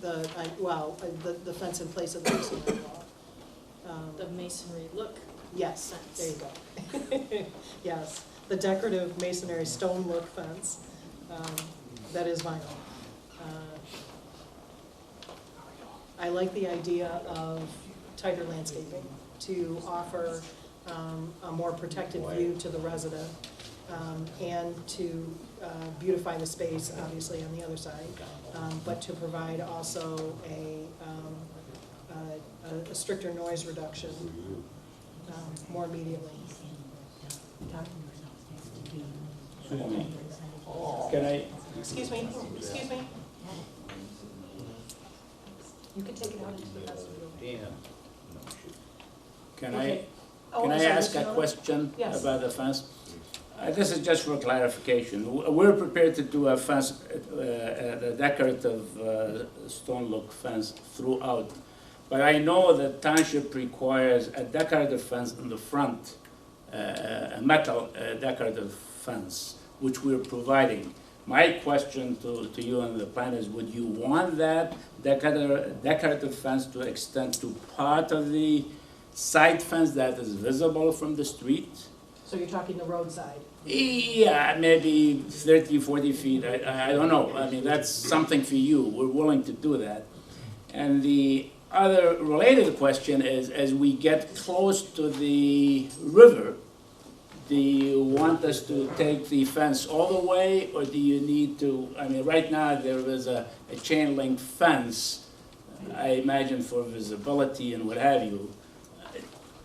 the, I- well, uh, the, the fence in place of the masonry wall. Um, the masonry look. Yes, there you go. Yes, the decorative masonry stone look fence, um, that is vinyl. Uh, I like the idea of tighter landscaping to offer, um, a more protected view to the resident. Um, and to, uh, beautify the space, obviously, on the other side, um, but to provide also a, um, a- a- a stricter noise reduction um, more immediately. Excuse me. Can I, Excuse me, excuse me. You can take it out into the vestibule. Dan? Can I, Okay. Oh, can I'm I sorry, ask Mr. a Miller? question Yes. about the fence? Uh, This is just for clarification. W- We're prepared to do a fence, uh, uh, the decorative uh, stone look fence throughout. But I know that township requires a decorative fence in the front, uh, a metal uh, decorative fence, which we're providing. My question to, to you and the plan is, would you want that decorative, decorative fence to extend to part of the side fence that is visible from the street? So you're talking the roadside? Yeah, maybe 30, 40 feet, I- I, I don't know, I mean, that's something for you, we're willing to do that. And the other related question is, as we get close to the river, do you want us to take the fence all the way, or do you need to, I mean, right now, there is a, a chain link fence, I imagine for visibility and what have you.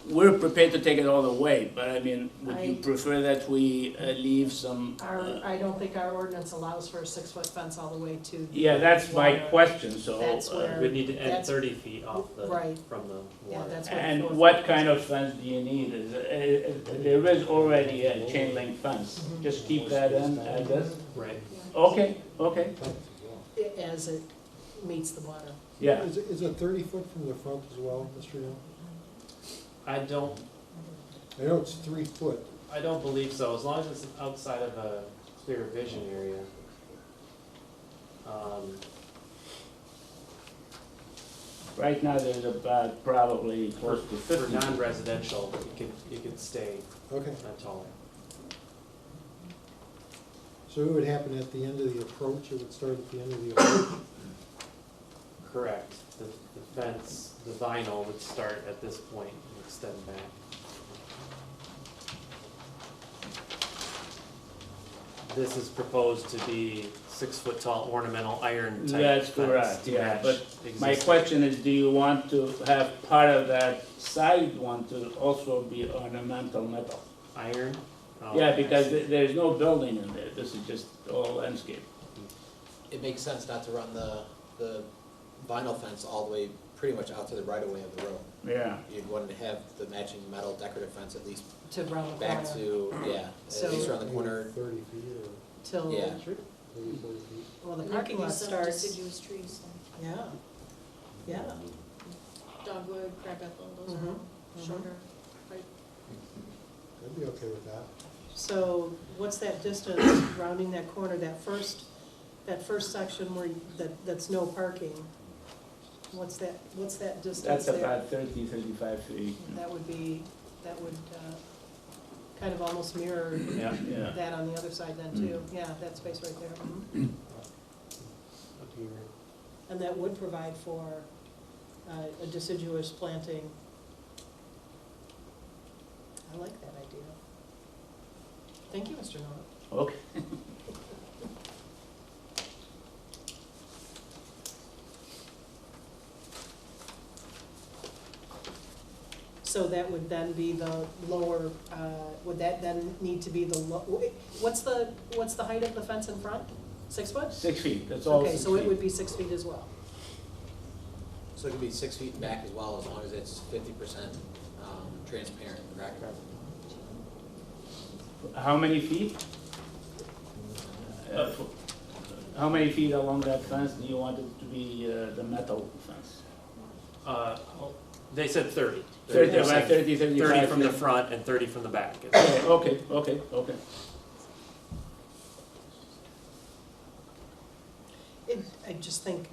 We're prepared to take it all the way, but I mean, would you I- prefer that we uh, leave some? Our, uh, I don't think our ordinance allows for a six-foot fence all the way to. the Yeah, that's my water. question, so. That's uh, where- We'd need to add That's- thirty feet off the, Right. from the Yeah, water. that's what. And four what foot kind is. of fence do you need? Is, uh, uh, there is already a chain link fence, Mhm. just keep that in, I guess? Right, Okay, okay, I- As it meets the water. yeah. Is it, is it thirty foot from the front as well, Mr. Young? I don't, I know it's three foot. I don't believe so, as long as it's outside of a clear vision area. Um, Right now, there's about probably for, close to for fifty. non-residential, you could, you could stay Okay, that tall. so it would happen at the end of the approach, it would start at the end of the approach. Correct, the, the fence, the vinyl would start at this point and extend back. This is proposed to be six-foot tall ornamental iron type That's fence correct, to yeah, match but My existing. question is, do you want to have part of that side one to also be ornamental metal? Iron? Oh, Yeah, I because see. th- there's no building in there, this is just all landscape. it makes sense not to run the, the vinyl fence all the way, pretty much out to the right of way of the road. Yeah. You'd want to have the matching metal decorative fence at least To round the back corner, to, yeah, So- at least around the corner. Thirty feet till, Yeah. or maybe forty feet. well, the And there parking could be lot some starts, deciduous trees, yeah, yeah. like dogwood, crab apple, those are all Mhm, mhm. shorter, right? I'd be okay with that. So what's that distance rounding that corner, that first, that first section where, you- that, that's no parking? What's that, what's that distance That's there? about 30, 35 feet. That would be, that would uh, kind of almost mirror Yeah, yeah. Mm. that on the other side then too. Yeah, that space right there. Mhm. Up here. And that would provide for uh, a deciduous planting. I like that idea. Thank you, Mr. Noah. Okay. So that would then be the lower, uh, would that then need to be the, lo- what's the, what's the height of the fence in front? Six foot? Six feet, that's all Okay, six so it would feet. be six feet as well. So it could be six feet back as well, as long as it's fifty percent, um, transparent, correct? How many feet? Uh, f- How many feet along that fence do you want it to be uh, the metal fence? Uh, they said thirty. 30, They're about saying 30, 35. Thirty from the feet. front and thirty from the back. Okay, okay, okay, okay. It, I just think